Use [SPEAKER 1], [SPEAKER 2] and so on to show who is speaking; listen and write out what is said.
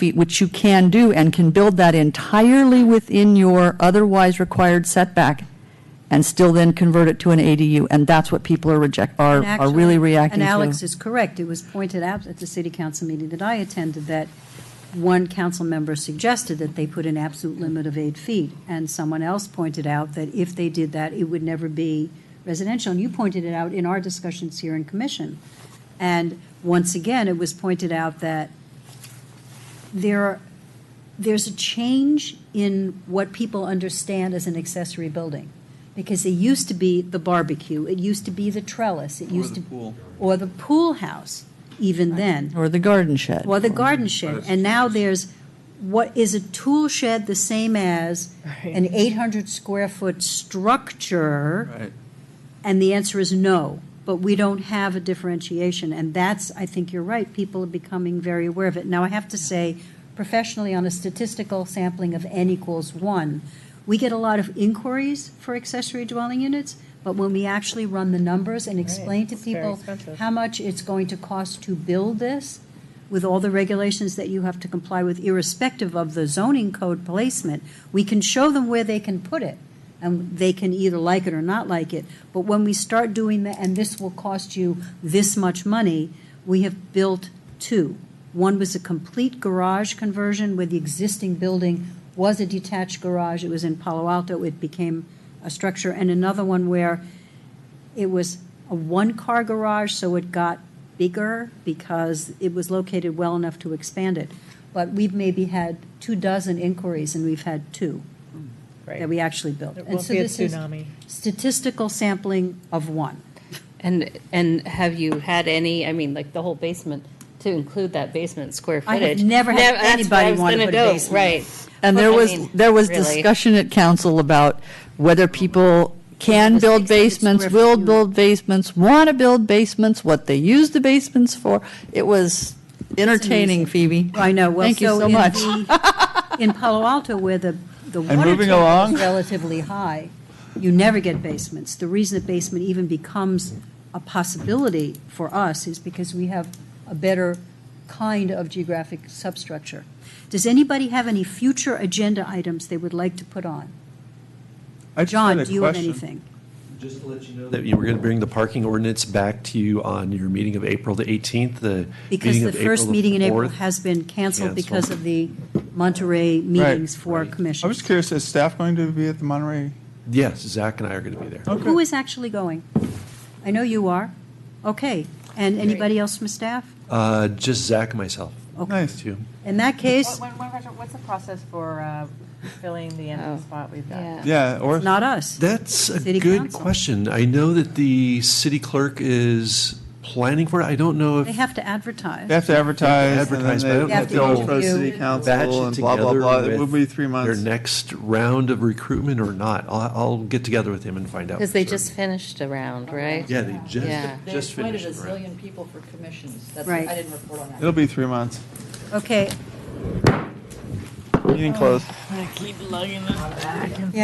[SPEAKER 1] feet, which you can do and can build that entirely within your otherwise required setback and still then convert it to an ADU. And that's what people are reject, are,
[SPEAKER 2] And
[SPEAKER 1] are really
[SPEAKER 2] actually-
[SPEAKER 1] reacting to.
[SPEAKER 2] And Alex is correct. It was pointed out at the city council meeting that I attended that one council member suggested that they put an absolute limit of eight feet. And someone else pointed out that if they did that, it would never be residential. And you pointed it out in our discussions here in commission. And once again, it was pointed out that there are there's a change in what people understand as an accessory building. Because it used to be the barbecue, it used to be the trellis, it used to.
[SPEAKER 3] the pool.
[SPEAKER 2] Or the pool house, even then,
[SPEAKER 1] Or the garden shed.
[SPEAKER 2] or the garden shed. And now there's, what, is a tool shed the same as an eight hundred square foot structure?
[SPEAKER 3] Right.
[SPEAKER 2] And the answer is no, but we don't have a differentiation. And that's, I think you're right, people are becoming very aware of it. Now, I have to say, professionally, on a statistical sampling of n equals one, we get a lot of inquiries for accessory dwelling units, but when we actually run the numbers and explain to
[SPEAKER 4] It's very
[SPEAKER 2] people
[SPEAKER 4] expensive.
[SPEAKER 2] how much it's going to cost to build this, with all the regulations that you have to comply with, irrespective of the zoning code placement, we can show them where they can put it, and they can either like it or not like it. But when we start doing that, and this will cost you this much money, we have built two. One was a complete garage conversion where the existing building was a detached garage. It was in Palo Alto. It became a structure. And another one where it was a one-car garage, so it got bigger because it was located well enough to expand it. But we've maybe had two dozen inquiries, and we've had two that we actually built.
[SPEAKER 4] It
[SPEAKER 2] And
[SPEAKER 4] won't
[SPEAKER 2] so
[SPEAKER 4] be a
[SPEAKER 2] this is
[SPEAKER 4] tsunami.
[SPEAKER 2] Statistical sampling of one.
[SPEAKER 5] And, and have you had any, I mean, like the whole basement, to include that basement square
[SPEAKER 2] I have
[SPEAKER 5] footage?
[SPEAKER 2] never had
[SPEAKER 5] Nev- that's
[SPEAKER 2] anybody
[SPEAKER 5] where I was
[SPEAKER 2] wanna
[SPEAKER 5] gonna
[SPEAKER 2] put a
[SPEAKER 5] go,
[SPEAKER 2] basement.
[SPEAKER 5] Right.
[SPEAKER 1] And
[SPEAKER 5] Well,
[SPEAKER 1] there
[SPEAKER 5] I
[SPEAKER 1] was,
[SPEAKER 5] mean,
[SPEAKER 1] there was
[SPEAKER 5] really.
[SPEAKER 1] discussion at council about whether people can
[SPEAKER 2] Whether
[SPEAKER 1] build
[SPEAKER 2] six hundred
[SPEAKER 1] basements,
[SPEAKER 2] square
[SPEAKER 1] will
[SPEAKER 2] feet.
[SPEAKER 1] build basements, want to build basements, what they use the basements for. It was entertaining, Phoebe.
[SPEAKER 2] I know, well,
[SPEAKER 1] Thank you
[SPEAKER 2] so
[SPEAKER 1] so
[SPEAKER 2] in
[SPEAKER 1] much.
[SPEAKER 2] the, in Palo Alto, where the, the water
[SPEAKER 3] moving
[SPEAKER 2] table
[SPEAKER 3] along.
[SPEAKER 2] is relatively high, you never get basements. The reason a basement even becomes a possibility for us is because we have a better kind of geographic substructure. Does anybody have any future agenda items they would like to put on?
[SPEAKER 3] I just had
[SPEAKER 2] John,
[SPEAKER 3] a
[SPEAKER 2] do you have
[SPEAKER 3] question.
[SPEAKER 2] anything?
[SPEAKER 6] Just to let you know that you were going to bring the parking ordinance back to you on your meeting of April the 18th, the
[SPEAKER 2] Because
[SPEAKER 6] meeting
[SPEAKER 2] the
[SPEAKER 6] of
[SPEAKER 2] first
[SPEAKER 6] April
[SPEAKER 2] meeting in
[SPEAKER 6] the
[SPEAKER 2] April
[SPEAKER 6] 4th.
[SPEAKER 2] has been canceled
[SPEAKER 6] Canceled.
[SPEAKER 2] because of the Monterey meetings for commission.
[SPEAKER 3] I was curious, is staff going to be at the Monterey?
[SPEAKER 6] Yes, Zach and I are going to be there.
[SPEAKER 3] Okay.
[SPEAKER 2] Who is actually going? I know you are. Okay. And anybody else from staff?
[SPEAKER 6] Uh, Just Zach and myself.
[SPEAKER 3] Nice.
[SPEAKER 6] Two.
[SPEAKER 2] In that
[SPEAKER 4] What-
[SPEAKER 2] case,
[SPEAKER 4] when- when- What's the process for uh, filling the
[SPEAKER 5] Oh.
[SPEAKER 4] empty spot we've got?
[SPEAKER 5] Yeah.
[SPEAKER 3] Yeah, or,
[SPEAKER 2] not us.
[SPEAKER 6] That's a
[SPEAKER 2] City
[SPEAKER 6] good
[SPEAKER 2] Council.
[SPEAKER 6] question. I know that the city clerk is planning for it. I don't know
[SPEAKER 2] They
[SPEAKER 6] if,
[SPEAKER 2] have to
[SPEAKER 3] they
[SPEAKER 2] advertise.
[SPEAKER 3] have to advertise, and then
[SPEAKER 6] advertise, but I
[SPEAKER 3] they
[SPEAKER 6] don't
[SPEAKER 2] They have
[SPEAKER 3] have
[SPEAKER 2] to
[SPEAKER 3] to go for the
[SPEAKER 2] interview.
[SPEAKER 3] city
[SPEAKER 6] batch
[SPEAKER 3] council
[SPEAKER 6] it
[SPEAKER 3] and blah, blah, blah.
[SPEAKER 6] together
[SPEAKER 3] It will be three
[SPEAKER 6] with their
[SPEAKER 3] months.
[SPEAKER 6] next round of recruitment or not. I'll, I'll get together with him and find out.
[SPEAKER 5] Because they
[SPEAKER 6] for
[SPEAKER 5] just
[SPEAKER 6] certain.
[SPEAKER 5] finished a round, right?
[SPEAKER 6] Yeah, they
[SPEAKER 5] Yeah.
[SPEAKER 6] just, just finished.
[SPEAKER 7] They
[SPEAKER 6] the round.
[SPEAKER 7] appointed a zillion people for commissions. That's,
[SPEAKER 2] Right.
[SPEAKER 7] I didn't report on that.
[SPEAKER 3] It'll be three months.
[SPEAKER 2] Okay.
[SPEAKER 3] Meeting closed.